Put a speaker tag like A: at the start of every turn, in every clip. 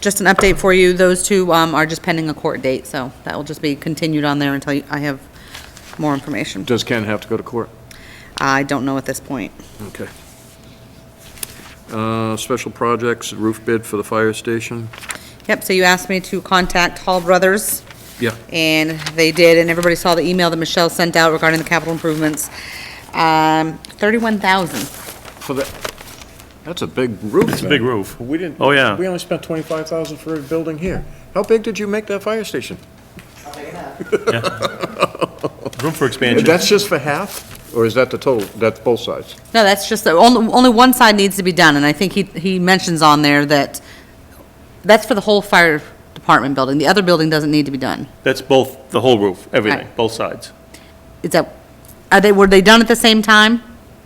A: just an update for you, those two um, are just pending a court date, so that will just be continued on there until you- I have more information.
B: Does Ken have to go to court?
A: I don't know at this point.
B: Okay. Uh, Special projects, roof bid for the fire station?
A: Yep, so you asked me to contact Hall Brothers.
B: Yeah.
A: And they did, and everybody saw the email that Michelle sent out regarding the capital improvements. Um, thirty-one thousand.
B: For the, that's a big roof. It's
C: Big roof.
B: We didn't.
C: Oh, yeah.
B: We only spent 25,000 for a building here. How big did you make that fire station?
C: Room for expansion.
B: That's just for half, or is that the total? That's both sides?
A: No, that's just, the only, only one side needs to be done, and I think he, he mentions on there that, that's for the whole fire department building. The other building doesn't need to be done.
C: That's both, the whole roof, everything,
A: Right.
C: both sides.
A: Is that, are they, were they done at the same time?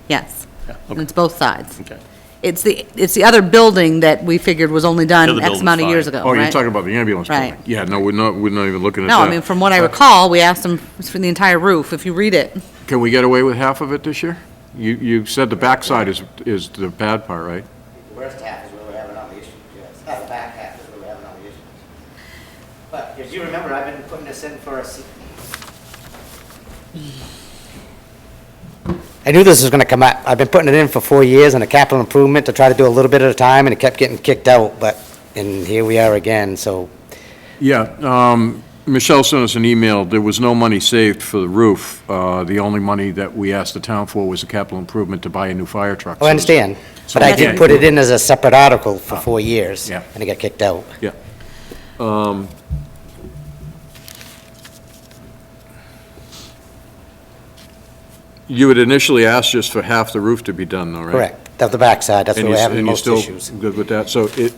A: Yes.
C: Yeah,
A: And
C: okay.
A: it's both sides.
C: Okay.
A: It's the, it's the other building that we figured was only
C: The
A: done
C: other
A: X amount of years
C: building's fine.
A: ago,
B: Oh, you're
A: right?
B: talking about the ambulance building?
A: Right.
B: Yeah, no, we're not, we're not even looking at that. Uh,
A: No, I mean, from what I recall, we asked them for the entire roof, if you read it.
B: Can we get away with half of it this year? You, you said the backside is, is the bad part, right?
D: The worst half is where we're having all the issues, yes. Uh, The back half is where we're having all the issues. But as you remember, I've been putting this in for a se- I knew this was gonna come up. I've been putting it in for four years on a capital improvement to try to do a little bit at a time, and it kept getting kicked out, but, and here we are again, so. oh,
B: Yeah, um, Michelle sent us an email, there was no money saved for the roof. Uh, The only money that we asked the town for was a capital improvement to buy a new fire truck.
D: Oh, I understand,
B: So
D: but I
B: we
D: did
B: can't
D: put
B: do
D: it in as a separate article for four years,
B: yeah.
D: and it got kicked out.
B: Yeah. Um, You had initially asked just for half the roof to be done, though, right?
D: Correct, of the backside, that's
B: And
D: where
B: you-
D: we're having the
B: and you're
D: most
B: still
D: issues.
B: Good with that, so it,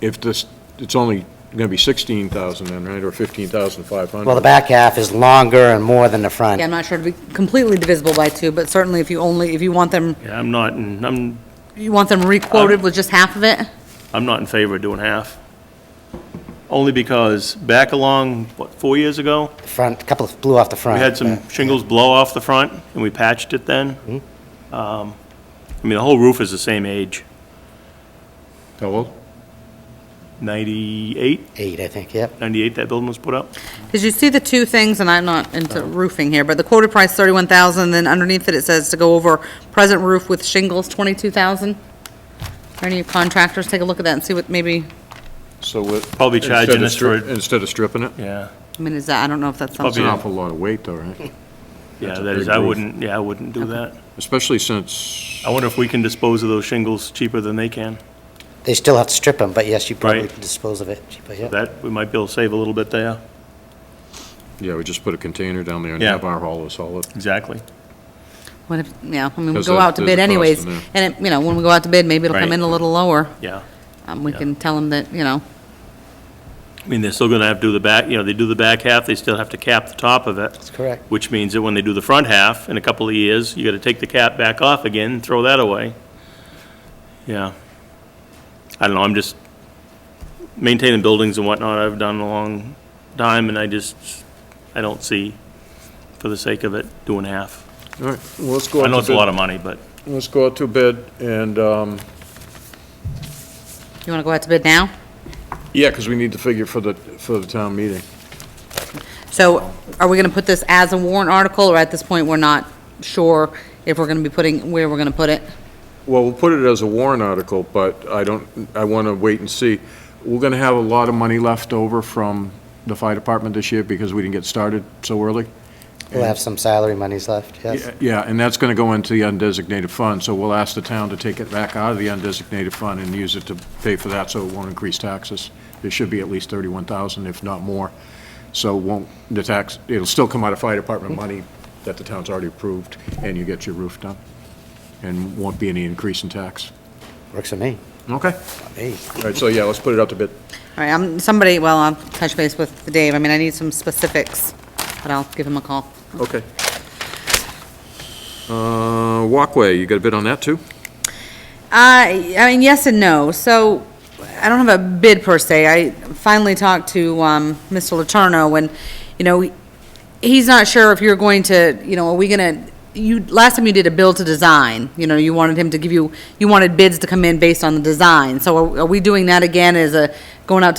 B: if this, it's only gonna be sixteen thousand then, right, or fifteen thousand five hundred?
D: Well, the back half is longer and more than the front.
A: Yeah, I'm not sure it'd be completely divisible by two, but certainly if you only, if you want them,
C: Yeah, I'm not, in- I'm,
A: you want them
C: Um,
A: requoted with just half of it?
C: I'm not in favor of doing half. Only because back along, what, four years ago,
D: front, a couple of blew off the front.
C: we had some shingles blow off the front, and we patched it then. Um, I mean, the whole roof is the same age,
B: How old?
C: 98,
D: Eight, I think, yep.
C: 98 that building was put up.
A: Because you see the two things, and I'm not into
C: Uh-huh.
A: roofing here, but the quoted price thirty-one thousand, then underneath it, it says to go over present roof with shingles, twenty-two thousand. Are any contractors, take a look at that and see what maybe,
B: So what?
C: Probably charging us
B: instead
C: for,
B: of stri-
C: it.
B: Instead of stripping it?
C: yeah,
A: I mean, is that, I don't know if that's
B: It's
A: something.
B: an
C: Yeah.
B: awful lot of weight though, right?
C: yeah,
B: That's a
C: that is,
B: big
C: I
B: roof.
C: wouldn't, yeah, I wouldn't do that.
B: Especially since,
C: I wonder if we can dispose of those shingles cheaper than they can.
D: They still have to strip them, but yes, you probably
C: Right.
D: can dispose of it cheaper, yep.
C: That, we might be able to save a little bit there.
B: yeah, we just put a container down there and
C: Yeah.
B: have our haulers haul it.
C: Exactly.
A: What if, yeah, I mean, we
B: 'Cause
A: go
B: there-
A: out to
B: there's a
A: bid
B: cost in
A: anyways,
B: there.
A: and it, you know, when we go out to bid, maybe it'll come
C: Right.
A: in a little lower.
C: Yeah.
A: Um, we
C: Yeah.
A: can tell them that, you know,
C: I mean, they're still gonna have to do the back, you know, they do the back half, they still have to cap the top of it,
D: That's correct.
C: which means that when they do the front half in a couple of years, you gotta take the cap back off again, and throw that away. Yeah. I don't know, I'm just maintaining buildings and whatnot, I've done a long time, and I just, I don't see, for the sake of it, doing half.
B: All right, well, let's go out
C: I
B: to bid.
C: know it's a lot of money, but
B: Let's go out to bid and, um,
A: you wanna go out to bid now?
B: yeah, because we need the figure for the, for the town meeting.
A: So are we gonna put this as a warrant article, or at this point, we're not sure if we're gonna be putting, where we're gonna put it?
B: Well, we'll put it as a warrant article, but I don't, I want to wait and see. We're going to have a lot of money left over from the fire department this year because we didn't get started so early.
D: We'll have some salary monies left, yes.
B: Yeah, Yeah, and that's going to go into the undesignated fund, so we'll ask the town to take it back out of the undesignated fund and use it to pay for that, so it won't increase taxes. There should be at least 31,000, if not more. So it won't, the tax, it'll still come out of fire department money that the town's already approved, and you get your roof done, and won't be any increase in tax.
D: Works for me.
B: Okay.
D: Hey,
B: All right, so yeah, let's put it out to bid.
A: All right, I'm, somebody, well, I'll touch base with Dave. I mean, I need some specifics, but I'll give him a call.
B: Okay. Uh, Walkway, you got a bid on that, too?
A: I, I mean, yes and no. So I don't have a bid per se. I finally talked to, um, Mr. Letourneau and, you know, he's not sure if you're going to, you know, are we gonna, you, last time you did a build to design, you know, you wanted him to give you, you wanted bids to come in based on the design. So are, are we doing that again as a, going out to